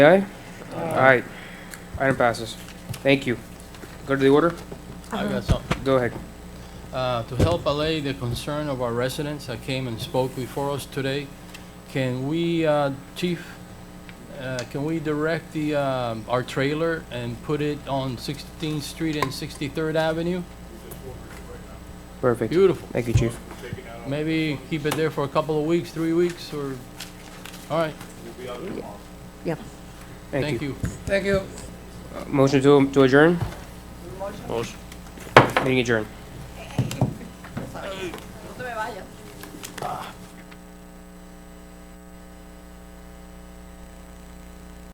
Aye? Aye. Item passes. Thank you. Go to the order? I Uh-huh. got something. Go ahead. Uh, To help allay the concern of our residents that came and spoke before us today, can we, uh, Chief, uh, can we direct the, um, our trailer and put it on 16th Street and 63rd Avenue? Perfect. Beautiful. Thank you, chief. Maybe keep it there for a couple of weeks, three weeks, or, all right, Thank you. Thank you. Uh, Motion to to adjourn? Motion. Meeting adjourned.